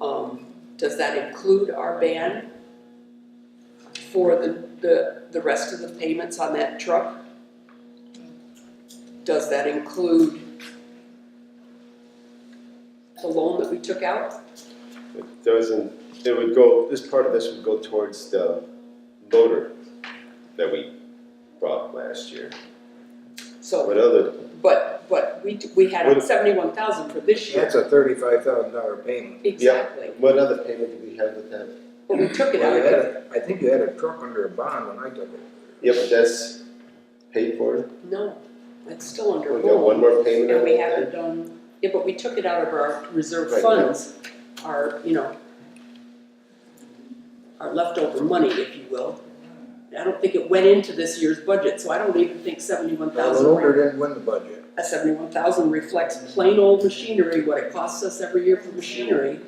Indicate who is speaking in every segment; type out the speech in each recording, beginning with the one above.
Speaker 1: Um, Does that include our ban for the, the, the rest of the payments on that truck? Does that include the loan that we took out?
Speaker 2: It doesn't, it would go, this part of this would go towards the motor that we bought last year.
Speaker 1: So,
Speaker 2: But other,
Speaker 1: but, but we, we had
Speaker 2: What-
Speaker 1: seventy-one thousand for this year.
Speaker 3: That's a thirty-five thousand dollar payment.
Speaker 1: Exactly,
Speaker 2: what other payment did we have with that?
Speaker 1: but we took it
Speaker 3: Well, you had
Speaker 1: out,
Speaker 3: a- I think you had a truck under a bond when I took it.
Speaker 2: Yeah, but that's paid for,
Speaker 1: no, it's still under
Speaker 2: we got
Speaker 1: rule.
Speaker 2: one more payment
Speaker 1: And
Speaker 2: on
Speaker 1: we
Speaker 2: that.
Speaker 1: haven't done, yeah, but we took it out of our reserve
Speaker 2: Right.
Speaker 1: funds, our, you know, our leftover money, if you will. I don't think it went into this year's budget, so I don't even think seventy-one
Speaker 3: The
Speaker 1: thousand.
Speaker 3: loader didn't win the budget.
Speaker 1: A seventy-one thousand reflects plain old machinery, what it costs us every year for machinery.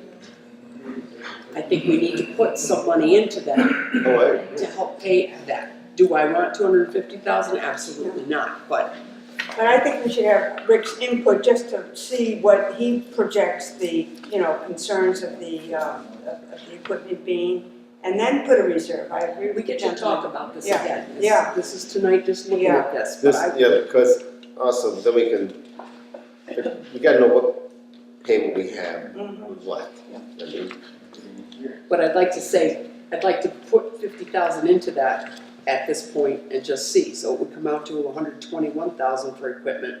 Speaker 1: I think we need to put some money into that
Speaker 2: Oh,
Speaker 1: to help pay that. Do I want two hundred and fifty thousand? Absolutely not, but
Speaker 4: But I think we should have Rick's input just to see what he projects the, you know, concerns of the, uh, of of the equipment being, and then put a reserve, I agree with
Speaker 1: we get to
Speaker 4: Jensen.
Speaker 1: talk about this
Speaker 4: Yeah,
Speaker 1: again. This-
Speaker 4: yeah.
Speaker 1: This is tonight, just looking at this,
Speaker 2: I,
Speaker 1: but
Speaker 2: this,
Speaker 1: I,
Speaker 2: yeah, because also, then we can, you gotta know what payment we have
Speaker 4: Mhm.
Speaker 2: with what. I mean,
Speaker 1: but I'd like to say, I'd like to put fifty thousand into that at this point and just see, so it would come out to hundred twenty-one thousand for equipment.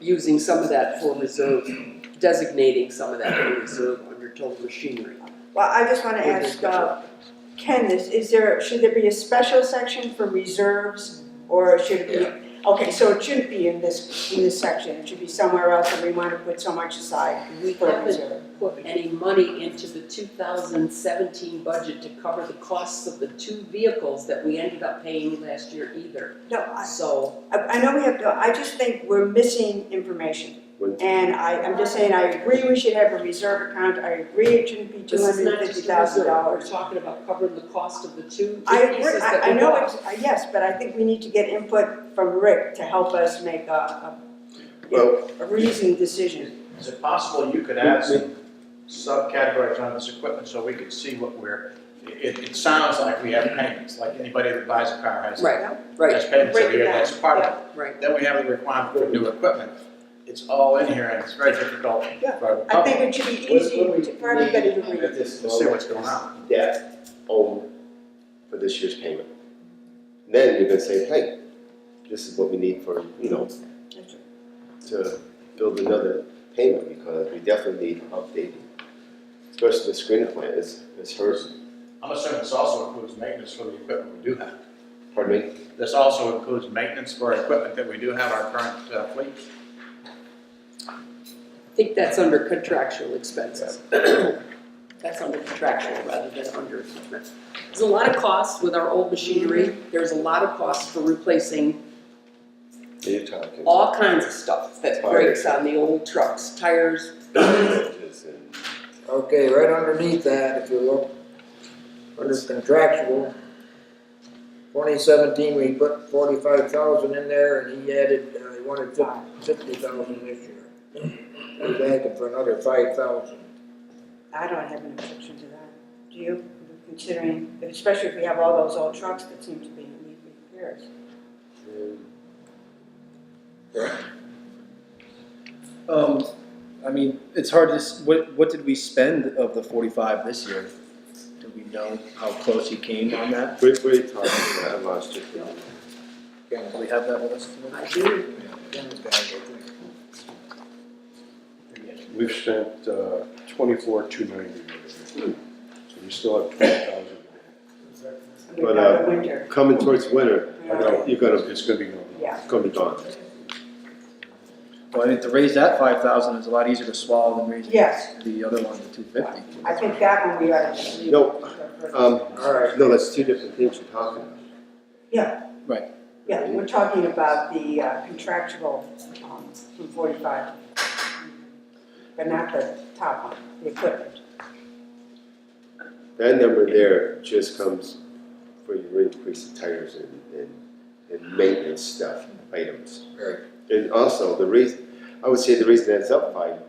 Speaker 1: Using some of that for reserve, designating some of that for reserve under total machinery.
Speaker 4: Well, I just wanna ask, uh, Ken, is, is there, should there be a special section for reserves, or should it be? Okay, so it shouldn't be in this, in this section, it should be somewhere else, and we wanna put so much aside
Speaker 1: We
Speaker 4: for a
Speaker 1: haven't
Speaker 4: reserve.
Speaker 1: put any money into the two thousand seventeen budget to cover the costs of the two vehicles that we ended up paying last year either,
Speaker 4: No, I,
Speaker 1: so.
Speaker 4: I I know we have, to. I just think we're missing information.
Speaker 2: when-
Speaker 4: And I, I'm just saying, I agree we should have a reserve account, I agree it shouldn't be two
Speaker 1: This is
Speaker 4: hundred
Speaker 1: not
Speaker 4: and fifty
Speaker 1: just
Speaker 4: thousand
Speaker 1: We're
Speaker 4: dollars.
Speaker 1: talking about covering the cost of the two
Speaker 4: I agree,
Speaker 1: pieces that
Speaker 4: I, I
Speaker 1: we
Speaker 4: know
Speaker 1: bought.
Speaker 4: it's, uh, yes, but I think we need to get input from Rick to help us make a, a,
Speaker 2: Well,
Speaker 4: a reasoned decision.
Speaker 5: Is it possible you could add some subcategories on this equipment so we could see what we're, it, it sounds like we have payments, like anybody that buys a car has.
Speaker 1: Right, right,
Speaker 5: Has payments
Speaker 4: Break it
Speaker 5: every year,
Speaker 4: down,
Speaker 5: that's part of
Speaker 1: right.
Speaker 5: it. Then we have the requirement for new equipment. It's all in here and it's very difficult for
Speaker 4: Yeah,
Speaker 5: the
Speaker 4: I think
Speaker 5: public
Speaker 4: it should be
Speaker 2: What- what
Speaker 4: easy
Speaker 2: do
Speaker 4: to-
Speaker 2: we
Speaker 4: for everybody to
Speaker 2: need
Speaker 4: read.
Speaker 2: at this
Speaker 5: to see
Speaker 2: moment?
Speaker 5: what's going on.
Speaker 2: debt owed for this year's payment. Then you can say, hey, this is what we need for, you know, to build another payment because we definitely need updating. Especially the screening plan is, is hers,
Speaker 5: I'm assuming this also includes maintenance for the equipment we do have.
Speaker 2: pardon me?
Speaker 5: This also includes maintenance for equipment that we do have our current uh, fleet.
Speaker 1: I think that's under contractual expenses. That's under contractual rather than under equipment. There's a lot of costs with our old machinery. There's a lot of costs for replacing
Speaker 2: You're talking.
Speaker 1: all kinds of stuff that breaks on the old trucks, tires.
Speaker 2: damages and-
Speaker 3: Okay, right underneath that, if you look, under contractual, twenty seventeen, we put forty-five thousand in there and he added, uh, he wanted fifty thousand this year. He's asking for another five thousand.
Speaker 4: I don't have an objection to that, do you? Considering, especially if we have all those old trucks that seem to be in need of repairs.
Speaker 2: and
Speaker 6: Um, I mean, it's hard to, s- what, what did we spend of the forty-five this year? Do we know how close he came on that?
Speaker 2: What, what are you talking about? I lost you.
Speaker 3: Ken's,
Speaker 6: Do we have that with us?
Speaker 1: I do,
Speaker 3: Ken's got it, I think.
Speaker 7: We've spent uh, twenty-four, two ninety. So we still have twenty thousand.
Speaker 4: We've
Speaker 2: But, uh,
Speaker 4: got the winter,
Speaker 2: Coming towards winter,
Speaker 4: you
Speaker 7: I
Speaker 4: know.
Speaker 7: know, you're gonna, it's gonna be gone.
Speaker 4: Yeah.
Speaker 2: it's gonna be gone.
Speaker 6: Well, I think to raise that five thousand is a lot easier to swallow than raising
Speaker 4: Yes,
Speaker 6: the other one to two fifty.
Speaker 4: I think that one we ought to leave.
Speaker 2: No, Um,
Speaker 3: All right.
Speaker 2: no, that's two different things you're talking about.
Speaker 4: Yeah, we're talking about the uh, contractual um, from forty-five, but not the top one, the equipment.
Speaker 2: That number there just comes for your increase in tires and, and, and maintenance stuff, items.
Speaker 3: Right.
Speaker 2: And also, the reason, I would say the reason that's up by